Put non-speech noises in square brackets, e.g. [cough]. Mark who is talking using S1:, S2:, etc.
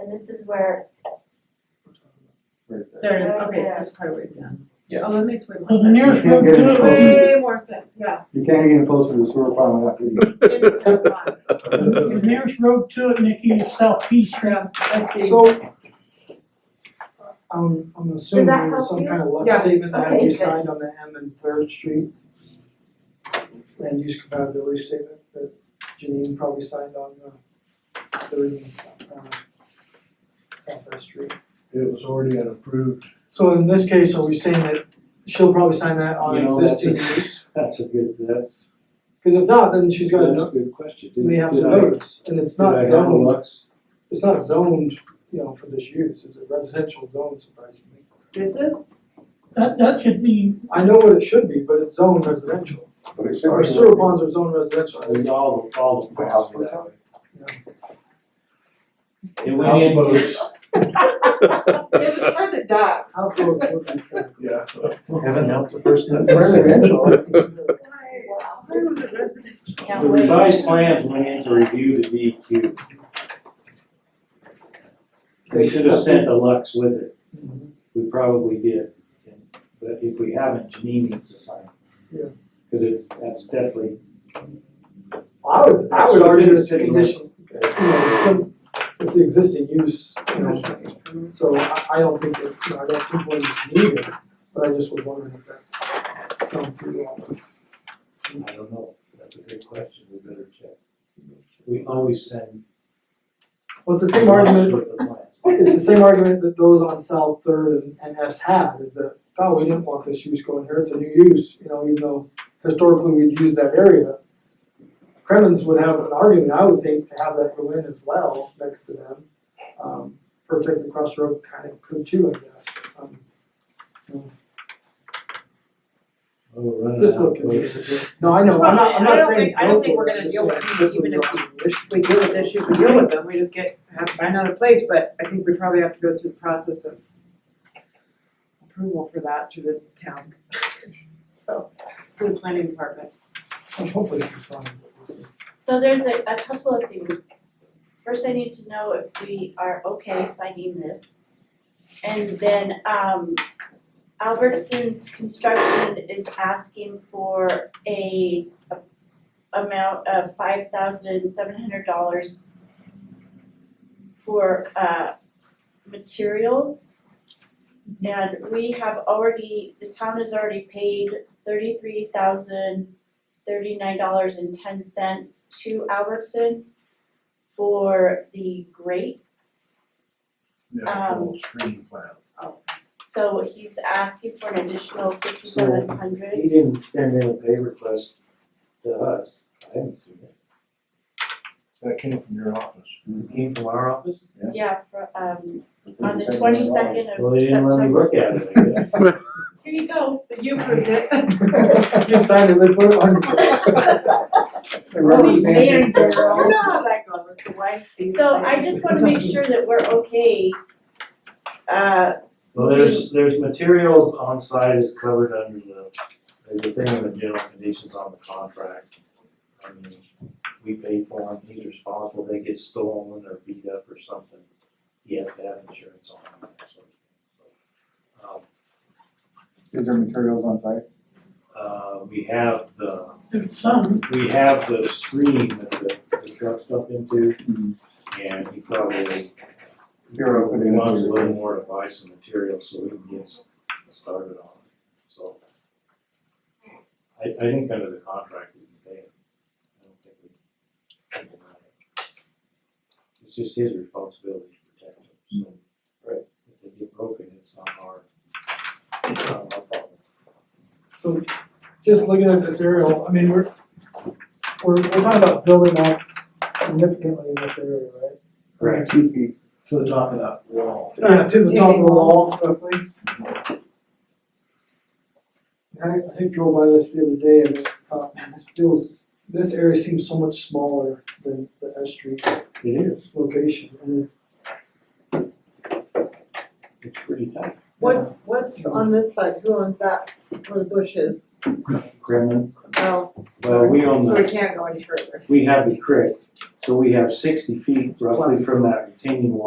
S1: and this is where,
S2: Right
S3: There it is, okay, so it's quite a ways down.
S4: Yeah.
S3: Oh, that makes way more
S5: Well, the
S3: sense.
S5: nearest road
S2: Yeah, good.
S5: to it
S3: Way more sense, yeah.
S2: You can't get any closer to the sewer pond without getting.
S3: It's so fun.
S5: The nearest road to it, Nikki, is southeast.
S3: Yeah, I see.
S6: So, I'm, I'm assuming
S1: Does that
S6: there was
S1: help
S6: some
S1: you?
S6: kind of
S3: Yeah.
S6: left statement that had to
S1: Okay,
S6: be
S1: good.
S6: signed on the M and Third Street. Land use compatibility statement that Janine probably signed on the third and south, um, Southwest Street.
S2: It was already an approved.
S6: So in this case, are we saying that she'll probably sign that on
S2: You know, that's
S6: existing
S2: a-
S6: use?
S2: That's a good, that's,
S6: Cause if not, then she's gotta,
S2: that's a
S6: know-
S2: good question. Did-
S6: may have
S2: did
S6: to
S2: I-
S6: notice, and it's not
S2: Did I have a
S6: zoned,
S2: lux?
S6: it's not zoned, you know, for this use, it's a residential zone surprisingly.
S3: This is,
S5: That, that should be,
S6: I know what it should be, but it's zoned residential.
S2: But it should
S6: Our
S2: be-
S6: sewer ponds are zoned residential, I
S2: It's all, all the house that way.
S4: It went in-
S3: it was for the ducks.
S6: How close would that be?
S2: Yeah.
S4: Heaven help the person
S3: Why
S4: that.
S3: was it residential?
S1: yeah,
S4: The
S1: wait.
S4: revised plans went into review to DEQ. We should have sent a Lux with it. We probably did. But if we haven't, Janine needs to sign.
S6: Yeah.
S4: Cause it's, that's definitely,
S6: I would, I would argue it's a condition, you know, it's some, it's the existing use, you know, so I, I don't think that, you know, I don't think one is needed, but I just was wondering if that's come through.
S4: I don't know. That's a great question. We better check. We always send.
S6: Well, it's the same argument,
S4: With the plans.
S6: it's the same argument that those on South Third and, and S have, is that, oh, we didn't want this use going here, it's a new use, you know, even though historically we'd used that area. Kremens would have an argument, I would think, to have that go in as well, next to them. Um, protect the crossroad kind of could too, I guess. Um,
S4: Oh, we're running
S6: Just
S4: out of
S6: look at
S4: places.
S6: this, no, I know, I'm not, I'm
S3: Well, I- I
S6: not
S3: don't
S6: saying.
S3: think- I don't think we're gonna deal with these, even if we deal with issues, we deal with them, we just get, have to find another place, but I think we probably have to go through the process of approval for that through the town. [laughs] So, through the planning department.
S6: Hopefully it's fine. [laughs]
S1: So there's a, a couple of things. First, I need to know if we are okay signing this. And then, um, Albertson's Construction is asking for a a- amount of five thousand seven hundred dollars for, uh, materials. And we have already, the town has already paid thirty-three thousand thirty-nine dollars and ten cents to Albertson for the grate.
S2: Yeah,
S1: Um,
S2: full screen plan.
S1: So he's asking for an additional fifty-seven hundred.
S4: He didn't send in a pay request to us. I haven't seen it.
S2: That came from your office.
S4: It came from our office?
S2: Yeah.
S1: Yeah, for, um, on the
S2: $27.
S1: twenty-second
S4: Well,
S1: of
S4: they didn't let me
S1: September.
S4: look at it, I guess.
S1: Here you go.
S3: But you approved it.
S6: You signed it, they put it on. The rubber's banded, so-
S3: You know how Oh, that goes, the wife sees.
S1: So I just wanna make sure that we're okay. Uh,
S4: Well, there's, there's materials on site is covered under the, there's a thing in the general conditions on the contract. I mean, we pay for them, he's responsible, they get stolen or beat up or something, he has to have insurance on them, so. um,
S2: Is there materials on site?
S4: Uh, we have the,
S5: there's some,
S4: we have the screen that the, the truck stuff into,
S2: Mhm.
S4: and he probably
S2: You're open to
S4: wants a little
S2: materials.
S4: more advice and material, so we can get s- started on it, so. I, I think under the contract, we can pay him. I don't think we. can deny it. It's just his responsibility to protect him, so. Right. If they get broken, it's not our, it's not our problem.
S6: So just looking at this aerial, I mean, we're, we're, we're talking about building up significantly in this area, right?
S4: Correct.
S2: Two feet to the top of that wall.
S6: Yeah, to the top of the wall roughly. I, I think drove by this the other day and I thought, man, this feels, this area seems so much smaller than the S Street
S4: It is,
S6: location. And it-
S4: it's pretty tight.
S7: What's, what's on this side, who owns that, where the bush is?
S4: Kremlin,
S7: Oh,
S4: well, Uh, we own
S7: so
S4: the.
S7: we can't go any further.
S4: we have the creek, so we have sixty feet roughly from that retaining wall